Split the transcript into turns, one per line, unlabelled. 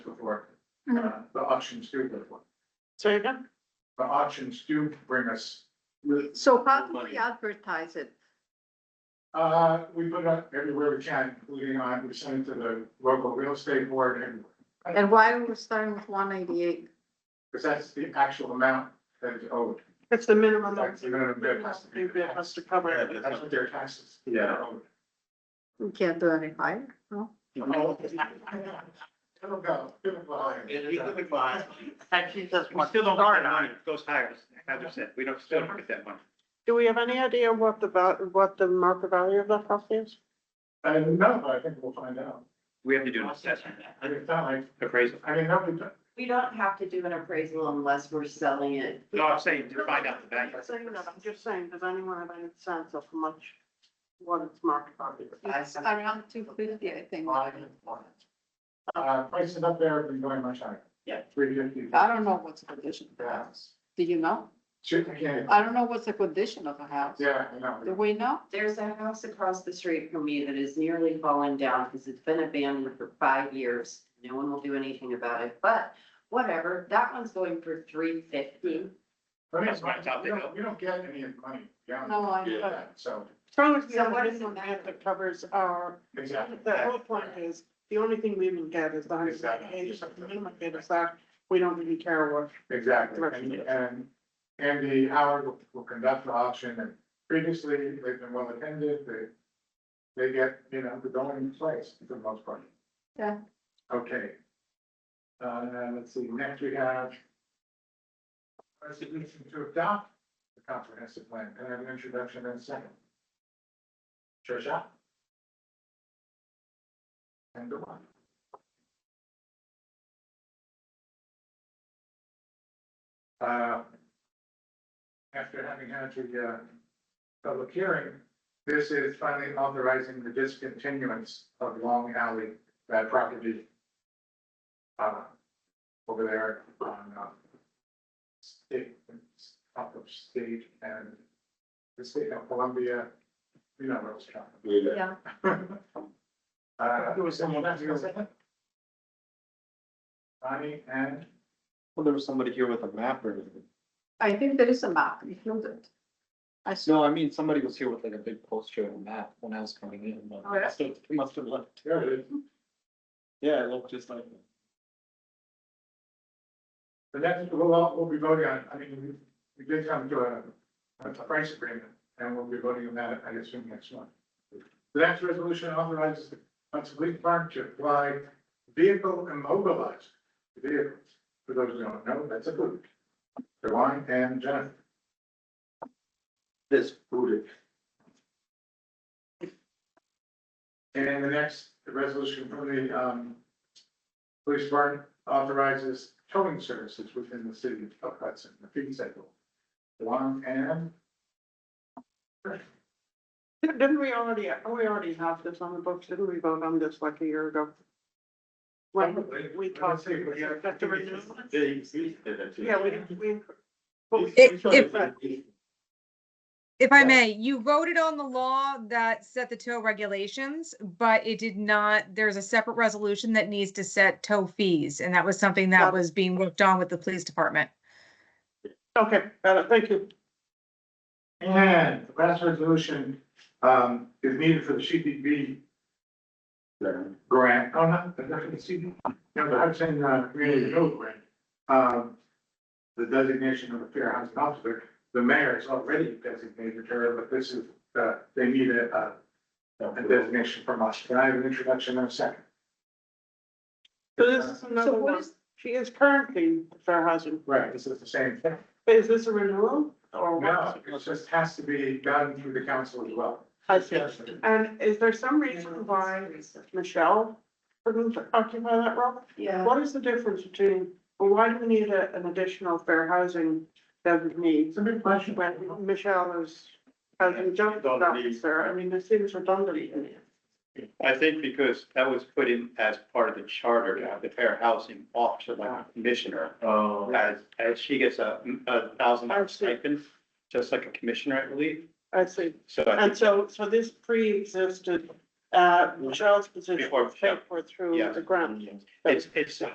Uh, The auctions do go for it.
Sorry again?
The auctions do bring us, with-
So how do
Money.
we advertise it?
uh, we put it up everywhere we can, including on, we send it to the local real estate board and
And why are we starting with one eighty-eight?
because that's the actual amount that is owed.
That's the minimum.
That's the minimum bid has to be-
New bid has to cover it.
That's what their taxes. Yeah.
We can't do any higher, no?
Oh,
It'll go, it'll go higher.
Actually, that's
We
what-
still don't get that money, it goes higher, as I said, we don't, still don't get that money.
Do we have any idea what the val, what the market value of that house is?
I don't know, but I think we'll find out.
We have to do an assessment,
I mean, it's not like,
appraisal.
I mean, nobody,
We don't have to do an appraisal unless we're selling it.
No, I'm saying to find out the value.
I'm saying that, I'm just saying, does anyone have any sense of how much, what its market value
It's
is?
around two fifty, I think.
uh, prices up there have been going much higher.
Yeah.
Three fifty.
don't know what's the condition
of the house.
Do you know?
Shoot, I can't,
I don't know what's the condition of the house.
yeah, I know.
we know?
There's a house across the street from me that is nearly fallen down because it's been abandoned for five years. No one will do anything about it, but whatever, that one's going for three fifty.
But
That's why
anyway,
it's out
we
there.
don't, we don't get any of the money. down
No, I
there.
know.
Yeah, So,
Strong as
So
the
what is the
minimum bid
matter?
that covers our,
exactly.
the whole point is, the only thing we even get is the hundred and eighty, so the minimum bid is that, we don't really care what.
Exactly,
Right.
and, and, and the Howard will, will conduct the auction, and previously, they've been well attended, they. They get, you know, the going in place for the most part.
Yeah.
Okay. Uh, let's see, next we have. Resolution to adopt the comprehensive plan, can I have an introduction and a second? Trisha? And the one. Uh, After having had the, uh, public hearing, this is finally authorizing the discontinuance of Long Alley, that property. Uh, over there on, uh, state, up of state and the state of Columbia, you know, where it's from.
Yeah.
Uh, who was someone that's gonna say that? Bonnie and
Well, there was somebody here with a map or,
I think there is a map included. I saw,
no, I mean, somebody was here with like a big poster and a map when I was coming in, but
Oh, yeah?
must have, must have left.
there it is.
Yeah, it looked just like.
The next, we'll, all- we'll be voting on, I mean, we, we did come to a, a price agreement, and we'll be voting on that, I assume, next month. The next resolution authorizes the Hudson Police Department to apply vehicle immobilized vehicles. For those who don't know, that's a boot. Devon and Jennifer. This booted. And the next resolution from the, um, Police Department authorizes towing services within the city of Hudson, the fee cycle. One and,
Didn't we already, oh, we already have this on the books, didn't we vote on this like a year ago? When we talked, that's the renewal. Yeah, we, we. but we-
If- if-
but-
If I may, you voted on the law that set the tow regulations, but it did not, there's a separate resolution that needs to set tow fees. And that was something that
Got it.
was being worked on with the police department.
Okay, got it, thank you.
and the last resolution, um, is needed for the CDB grant, oh, not, the CDB, no, the Hudson, uh, Community Renewal Grant. Um, the designation of a fair housing officer, the mayor is already designated her, but this is, uh, they need a, uh, a designation from us. Can I have an introduction in a second?
So this is another
so what
one,
is,
she is currently fair housing,
Right, this is the same thing.
but is this a renewal or
No,
what?
it just has to be done through the council as well.
I see. And is there some reason why Michelle couldn't occupy that role?
Yeah.
What is the difference between, well, why do we need a, an additional fair housing designee
It's a big question.
when Michelle is housing justice officer? I mean, this seems redundant.
I think because that was put in as part of the charter, to have the fair housing officer, like a commissioner.
Oh.
As, as she gets a, a thousand
I
dollar
see.
stipend, just like a commissioner, I believe.
I see.
So I
And
think,
so, so this pre-existed, uh, Michelle's position
Mm-hmm. Before
was paid for through
Yeah.
the grant.
it's, it's